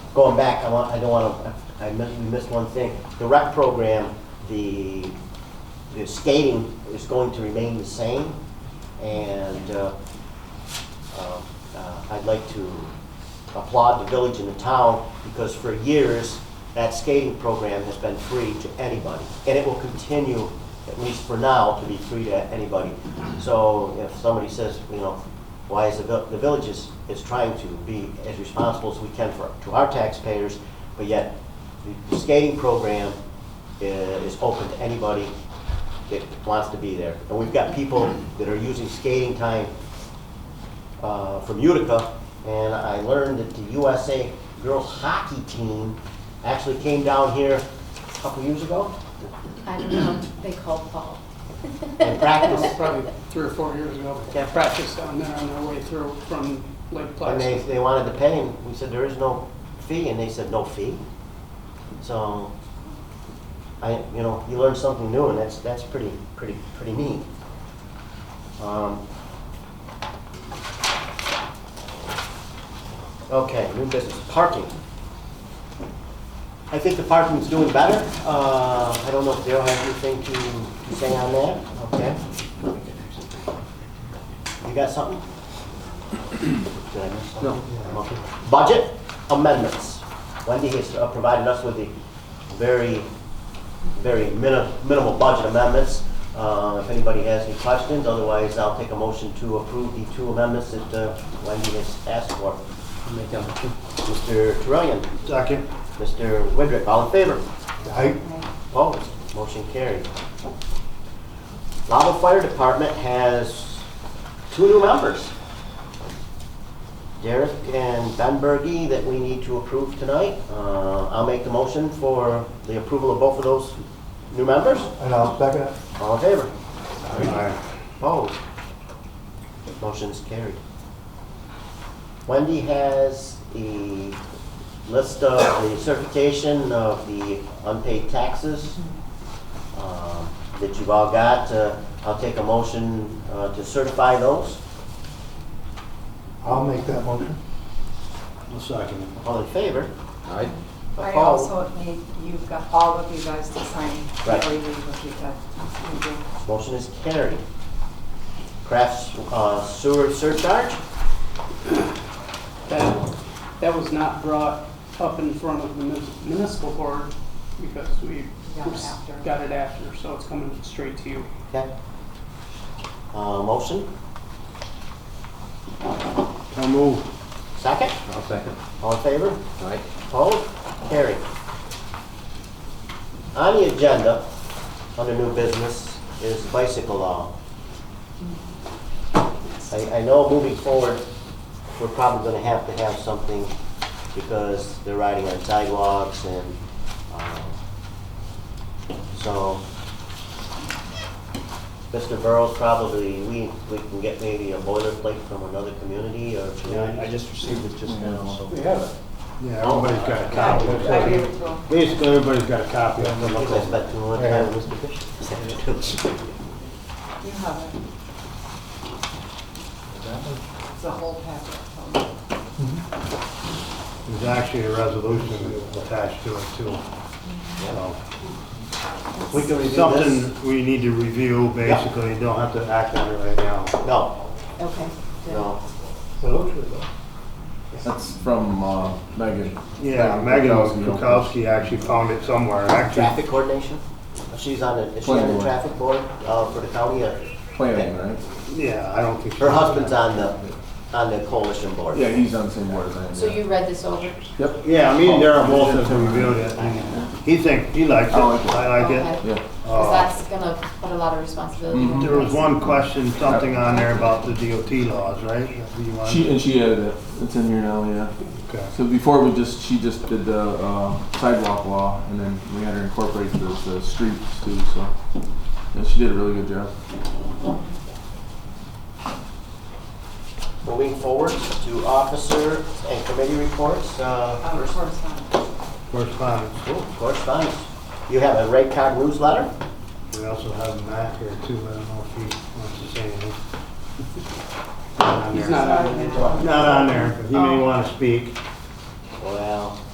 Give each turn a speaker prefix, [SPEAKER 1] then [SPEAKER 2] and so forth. [SPEAKER 1] going back, I want, I don't want to, I missed, we missed one thing. The rec program, the, the skating is going to remain the same, and, uh, uh, uh, I'd like to applaud the village and the town, because for years, that skating program has been free to anybody, and it will continue, at least for now, to be free to anybody. So if somebody says, you know, why is the, vil- the village is, is trying to be as responsible as we can for, to our taxpayers, but yet, the- the skating program i- is open to anybody that wants to be there. And we've got people that are using skating time uh, from Utica, and I learned that the USA girls hockey team actually came down here a couple years ago
[SPEAKER 2] I don't know, they called Paul.
[SPEAKER 1] and
[SPEAKER 3] Well,
[SPEAKER 1] practiced.
[SPEAKER 3] Probably three or four years ago.
[SPEAKER 1] Yeah.
[SPEAKER 3] Practiced down there on their way through from Lake
[SPEAKER 1] And they,
[SPEAKER 3] Placid.
[SPEAKER 1] they wanted to pay him. We said, there is no fee, and they said, no fee. So, I, you know, you learn something new, and that's, that's pretty, pretty, pretty neat. Um, Okay, new business, parking. I think the parking's doing better. Uh, I don't know if Daryl has anything to, to say on that, okay? You got something? Did I miss something? Okay. Budget amendments. Wendy has uh, provided us with the very, very mini- minimal budget amendments. Uh, If anybody has any questions, otherwise I'll take a motion to approve the two amendments that uh, Wendy has asked for. Mr. Trillian,
[SPEAKER 4] Second.
[SPEAKER 1] Mr. Widrick, all in favor?
[SPEAKER 4] Aye.
[SPEAKER 1] Opposed, motion carried. Lava Fire Department has two new members. Derek and Ben Bergy that we need to approve tonight. Uh, I'll make the motion for the approval of both of those new members.
[SPEAKER 4] And I'll second it.
[SPEAKER 1] All in favor?
[SPEAKER 4] Aye.
[SPEAKER 1] Opposed? Motion's carried. Wendy has the list of the certification of the unpaid taxes um, that you've all got. Uh, I'll take a motion uh, to certify those.
[SPEAKER 4] I'll make that motion.
[SPEAKER 1] All in favor?
[SPEAKER 5] I
[SPEAKER 1] Opposed?
[SPEAKER 5] also need, you've got, all of you guys to sign
[SPEAKER 1] Right.
[SPEAKER 5] before you leave if you got- you do.
[SPEAKER 1] Motion is carried. Crafts uh, sewer surcharge?
[SPEAKER 3] That, that was not brought up in front of the munis- municipal board because we
[SPEAKER 5] Got it after.
[SPEAKER 3] got it after, so it's coming straight to you.
[SPEAKER 1] Okay. Uh, Motion?
[SPEAKER 4] I'll move.
[SPEAKER 1] Second?
[SPEAKER 6] I'll second.
[SPEAKER 1] All in favor?
[SPEAKER 6] All right.
[SPEAKER 1] Opposed? Carried. On the agenda, under new business, is bicycle law. I, I know moving forward, we're probably gonna have to have something because they're riding on sidewalks and, um, so, Mr. Burrows, probably, we, we can get maybe a boilerplate from another community or.
[SPEAKER 7] I just received it just now, so.
[SPEAKER 4] have it. Yeah, everybody's got a copy. Looks
[SPEAKER 5] I gave
[SPEAKER 4] like-
[SPEAKER 5] it to him.
[SPEAKER 4] Basically, everybody's got a copy of
[SPEAKER 1] I think I
[SPEAKER 4] it.
[SPEAKER 1] spent too much time with Mr. Bishop.
[SPEAKER 5] You have it. It's a whole packet.
[SPEAKER 4] There's actually a resolution attached to it too. So,
[SPEAKER 1] We can review this.
[SPEAKER 4] Something we need to review, basically, don't have to act on it right now.
[SPEAKER 1] No,
[SPEAKER 5] Okay. good.
[SPEAKER 1] no.
[SPEAKER 6] That's from uh, Megan.
[SPEAKER 4] Yeah, Megan Kukowski actually found it somewhere, actually.
[SPEAKER 1] Traffic coordination? She's on the, is she on
[SPEAKER 6] Planning
[SPEAKER 1] the
[SPEAKER 6] board.
[SPEAKER 1] traffic board uh, for the county? or-
[SPEAKER 6] Planning, right?
[SPEAKER 4] Yeah, I don't think.
[SPEAKER 1] Her husband's on the, on the coalition board.
[SPEAKER 6] Yeah, he's on the same board as I am.
[SPEAKER 2] So
[SPEAKER 6] yeah.
[SPEAKER 2] you read this over?
[SPEAKER 6] Yep.
[SPEAKER 4] Yeah, me and Darren both have reviewed it. He thinks, he likes it,
[SPEAKER 6] I like it.
[SPEAKER 4] I like it.
[SPEAKER 2] Okay.
[SPEAKER 6] Yeah.
[SPEAKER 4] Uh,
[SPEAKER 2] Because that's gonna put a lot of responsibility on
[SPEAKER 6] Mhm.
[SPEAKER 4] Mm-hmm. There was
[SPEAKER 2] us.
[SPEAKER 4] one question, something on there about the DOT laws, right? Do you want-
[SPEAKER 6] She and she added it. It's in here now. Yeah.
[SPEAKER 4] Okay.
[SPEAKER 6] So before we just she just did the uh, sidewalk law, and then we had her incorporate the, the streets too. So yeah, she did a really good job.
[SPEAKER 1] Moving forward to officer and committee reports. uh,
[SPEAKER 5] Um,
[SPEAKER 1] first-
[SPEAKER 5] correspondence.
[SPEAKER 4] Correspondence.
[SPEAKER 1] oh, Correspondence. You have a Ray Cog newsletter?
[SPEAKER 4] We also have Matt here too, I don't know if he wants to say anything. Not on
[SPEAKER 3] He's
[SPEAKER 4] there.
[SPEAKER 3] not on it.
[SPEAKER 4] Not on there, but he may
[SPEAKER 5] Oh.
[SPEAKER 4] want to speak.